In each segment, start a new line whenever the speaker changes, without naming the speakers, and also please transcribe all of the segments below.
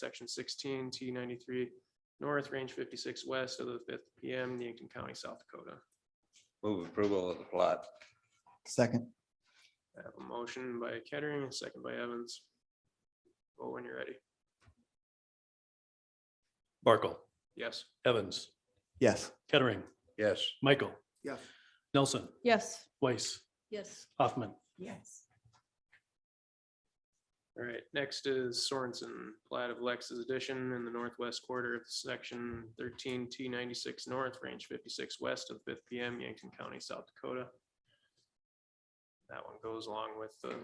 section sixteen, T ninety-three north, range fifty-six west of the fifth PM, Yankton County, South Dakota.
Move approval of the plat.
second,
I have a motion by Kettering, a second by Evans. Oh, when you're ready.
Barkle,
Yes.
Evans,
yes,
Kettering,
Yes.
Michael.
Yes.
Nelson,
Yes.
Weiss,
Yes.
Hoffman,
Yes.
All right, next is Sorensen, plat of Lex's addition in the northwest quarter of section thirteen T ninety-six north, range fifty-six west of fifth PM, Yankton County, South Dakota. That one goes along with the,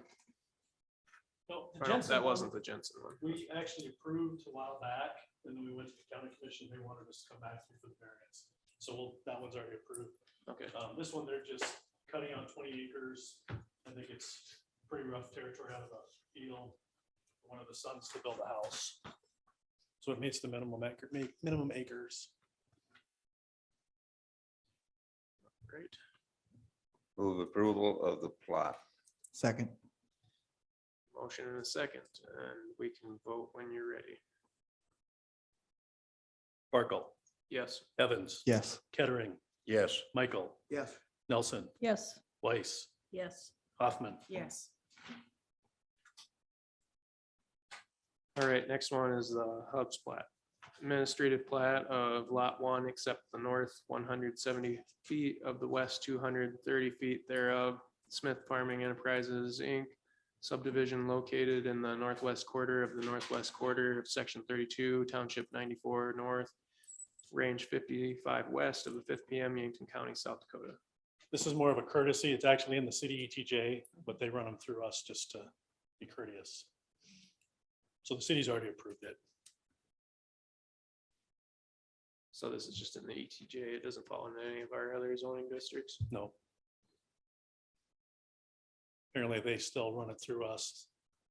No, the
or no,
Jensen
that
one,
wasn't the Jensen one.
We actually approved a while back, and then we went to the county commission, they wanted us to come back here for the variance. So we'll- that one's already approved.
Okay,
Um, this one, they're just cutting out twenty acres. I think it's pretty rough territory out of a field. for One of the sons to build a house. So it meets the minimum acre, mi- minimum acres.
great.
Move approval of the plot.
second,
Motion and a second, and we can vote when you're ready.
Barkle,
Yes.
Evans,
yes,
Kettering,
Yes.
Michael. Yes. Nelson,
Yes.
Weiss,
Yes.
Hoffman,
Yes.
All right, next one is the Hubs plat. Administrative plat of lot one, except the north one hundred seventy feet of the west two hundred thirty feet thereof. Smith Farming Enterprises, Inc. subdivision located in the northwest quarter of the northwest quarter of section thirty-two, township ninety-four north, range fifty-five west of the fifth PM, Yankton County, South Dakota.
This is more of a courtesy. It's actually in the city ETJ, but they run them through us just to be courteous. So the city's already approved it.
So this is just in the ETJ. It doesn't fall into any of our other zoning districts.
No. Apparently, they still run it through us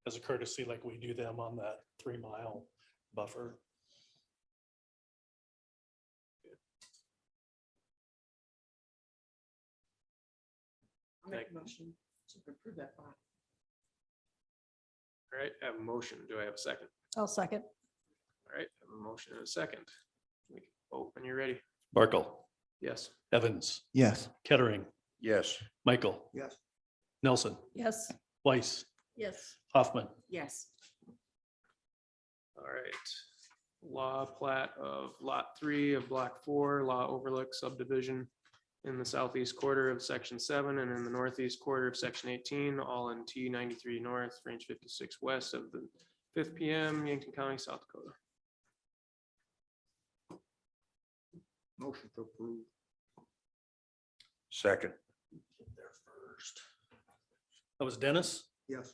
as a courtesy like we do them on that three mile buffer.
Make
motion to approve that bond.
All right, I have a motion. Do I have a second?
I'll second.
All right, I have a motion and a second. We can vote when you're ready.
Barkle,
Yes.
Evans,
yes,
Kettering,
Yes.
Michael.
Yes.
Nelson,
Yes.
Weiss,
Yes.
Hoffman,
Yes.
All right. Law plat of lot three of block four, law overlook subdivision in the southeast quarter of section seven and in the northeast quarter of section eighteen, all in T ninety-three north, range fifty-six west of the fifth PM, Yankton County, South Dakota.
Second.
Get there first.
that was Dennis.
Okay.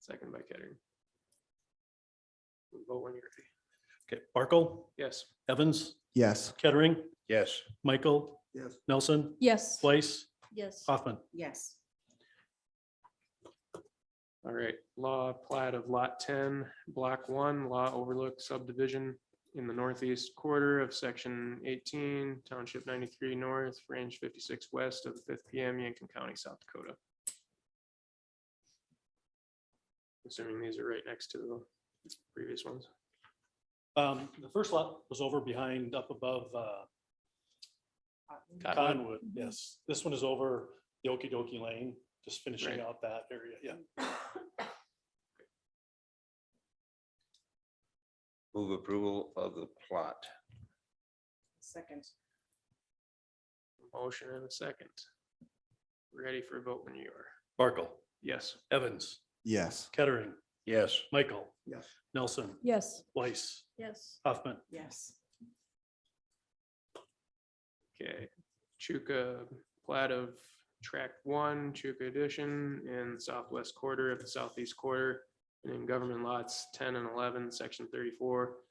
Second by Kettering. We Vote when you're ready.
Okay, Barkle,
Yes.
Evans,
yes,
Kettering,
Yes.
Michael.
Yes.
Nelson,
Yes.
Weiss,
Yes.
uh,
Hoffman,
Yes.
All right, law plat of lot ten, block one, law overlook subdivision in the northeast quarter of section eighteen, township ninety-three north, range fifty-six west of the fifth PM, Yankton County, South Dakota. Assuming these are right next to the previous ones.
Um, the first lot was over behind, up above, uh, Conwood,
Mhm.
yes. This one is over the Okidoki Lane, just
Right.
finishing out that area, yeah.
Move approval of the plot.
Second.
Motion and a second. Ready for a vote when you are.
Barkle,
Yes.
Evans,
yes,
Kettering,
Yes.
Michael.
Yes.
Nelson,
Yes.
Weiss,
Yes.
Hoffman,
Yes.
Okay, Chuka plat of track one, Chuka addition in southwest quarter of the southeast quarter. And in government lots ten and eleven, section thirty-four,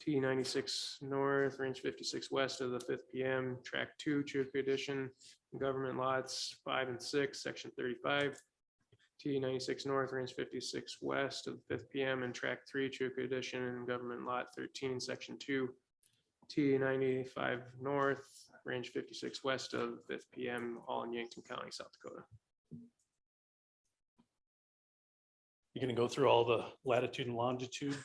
T ninety-six north, range fifty-six west of the fifth PM, track two, Chuka addition. Government lots five and six, section thirty-five, T ninety-six north, range fifty-six west of the fifth PM, and track three, Chuka addition, and government lot thirteen, section two. T ninety-five north, range fifty-six west of fifth PM, all in Yankton County, South Dakota.
You're gonna go through all the latitude and longitude